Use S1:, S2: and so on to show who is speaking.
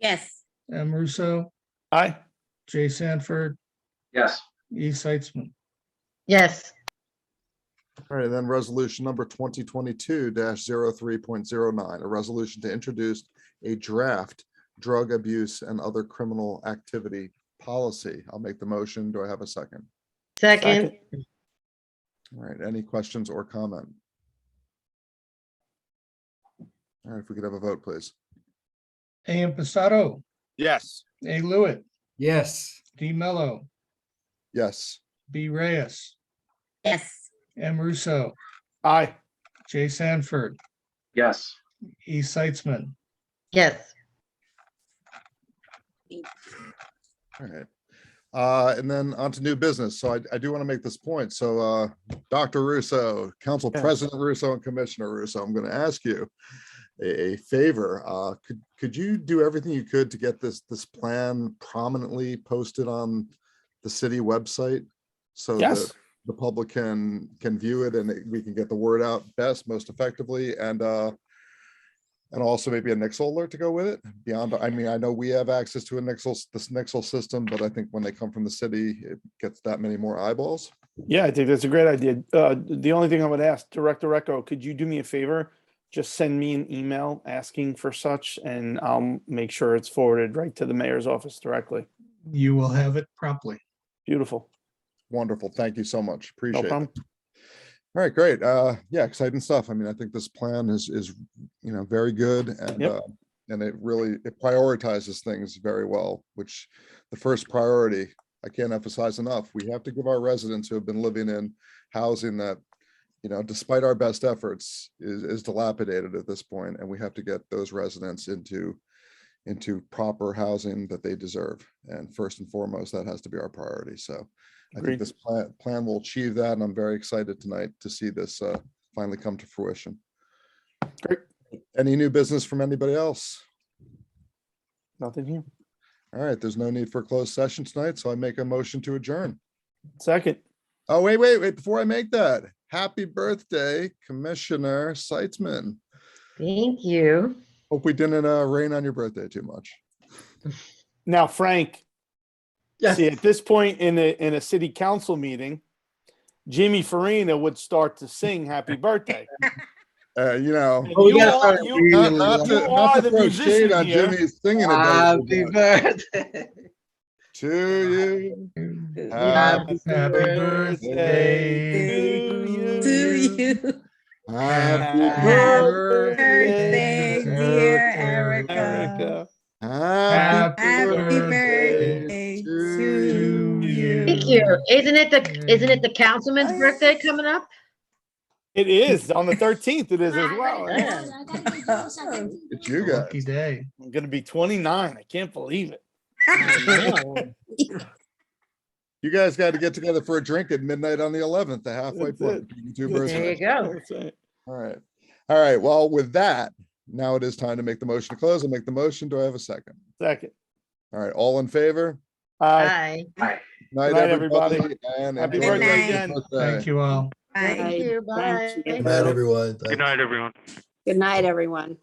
S1: Yes,
S2: M. Russo,
S3: Aye.
S2: Uh, Jay Sanford,
S4: Yes.
S2: E. Seitzman.
S5: yes,
S3: All right, and then resolution number twenty twenty-two 309 a resolution to introduce a draft drug abuse and other criminal activity policy. I'll make the motion. Do I have a second?
S5: second,
S3: All right, any questions or comment? All right, if we could have a vote, please.
S2: A. Impastato,
S6: Yes.
S2: A. Lewitt,
S7: yes,
S2: D. Mello,
S3: Yes,
S2: B. Reyes,
S1: yes,
S2: M. Russo,
S6: Aye.
S2: Jay Sanford,
S4: Yes.
S2: E. Seitzman.
S5: yes,
S3: all right. Uh, and then on to new business. So I, I do want to make this point. So, uh, Dr. Russo, Council
S6: Yes.
S3: President Russo and Commissioner Russo, I'm going to ask you a, a favor. Uh, could, could you do everything you could to get this, this plan prominently posted on the city website? So that
S6: Yes.
S3: the public can, can view it and it- we can get the word out best, most effectively and, uh, and also maybe a Nixle alert to go with it beyond, I mean, I know we have access to a Nixle, s- this Nixle system, but I think when they come from the city, it gets that many more eyeballs.
S6: Yeah, I think that's a great idea. Uh, the only thing I would ask Director Echo, could you do me a favor? Just send me an email asking for such and I'll make sure it's forwarded right to the mayor's office directly.
S2: You will have it promptly.
S6: Beautiful.
S3: Wonderful. Thank you so much.
S6: No
S3: Appreciate it. All
S6: problem.
S3: right, great. Uh, yeah, exciting stuff. I mean, I think this plan is, is, you know, very good and,
S6: Yep.
S3: uh, and it really, it prioritizes things very well, which the first priority, I can't emphasize enough, we have to give our residents who have been living in housing that, you know, despite our best efforts is, is dilapidated at this point, and we have to get those residents into, into proper housing that they deserve. And first and foremost, that has to be our priority. So I think
S6: Agreed.
S3: this plan, plan will achieve that, and I'm very excited tonight to see this uh, finally come to fruition.
S6: Great.
S3: Any new business from anybody else?
S6: Nothing here.
S3: All right, there's no need for closed session tonight, so I make a motion to adjourn.
S6: Second.
S3: Oh, wait, wait, wait, before I make that, happy birthday, Commissioner Seitzman.
S5: thank you.
S3: Hope we didn't uh, rain on your birthday too much.
S6: Now, Frank.
S7: Yes.
S6: See, at this point in a, in a city council meeting, Jimmy Farina would start to sing happy birthday.
S3: Uh, you know,
S6: And
S7: Oh,
S6: you
S7: yeah,
S6: are-
S7: sorry.
S6: you-
S7: We-
S3: not, not to,
S6: You are
S3: not to
S6: the
S3: throw shade
S6: musician
S3: on
S6: here.
S3: Jimmy's singing
S7: happy
S3: ability, but
S7: birthday.
S3: to you,
S2: Happy birthday.
S6: to
S1: to
S6: you.
S1: you.
S3: happy
S6: Happy
S3: birthday,
S1: Birthday, dear Erica.
S6: Erica.
S3: happy
S2: Happy
S1: Happy
S3: birthday
S1: birthday
S3: to
S1: to
S2: you.
S1: you.
S5: Thank you. Isn't it the, isn't it the councilman's birthday coming up?
S6: It is on the thirteenth. It is as well.
S1: Yeah.
S6: yeah.
S3: It's you guys.
S2: Lucky day.
S6: I'm gonna be twenty-nine. I can't believe it.
S3: You guys got to get together for a drink at midnight on the 11th, the halfway
S6: That's
S3: point.
S6: it.
S3: between you two
S6: That's
S3: birds of
S5: There
S3: a
S5: you go.
S6: That's it.
S3: All right. All right. Well, with that, now it is time to make the motion to close. I'll make the motion. Do I have a second?
S6: Second.
S3: All right. All in favor?
S6: Aye.
S5: Bye.
S3: Night,
S6: night, everybody.
S3: everybody. and
S6: Happy
S3: enjoy the
S1: birthday
S6: again.
S3: rest of your birthday.
S2: Thank you all.
S5: Thank you.
S6: Thank you.
S5: Bye.
S8: Good night, everyone. Good night, everyone.
S9: Good night, everyone.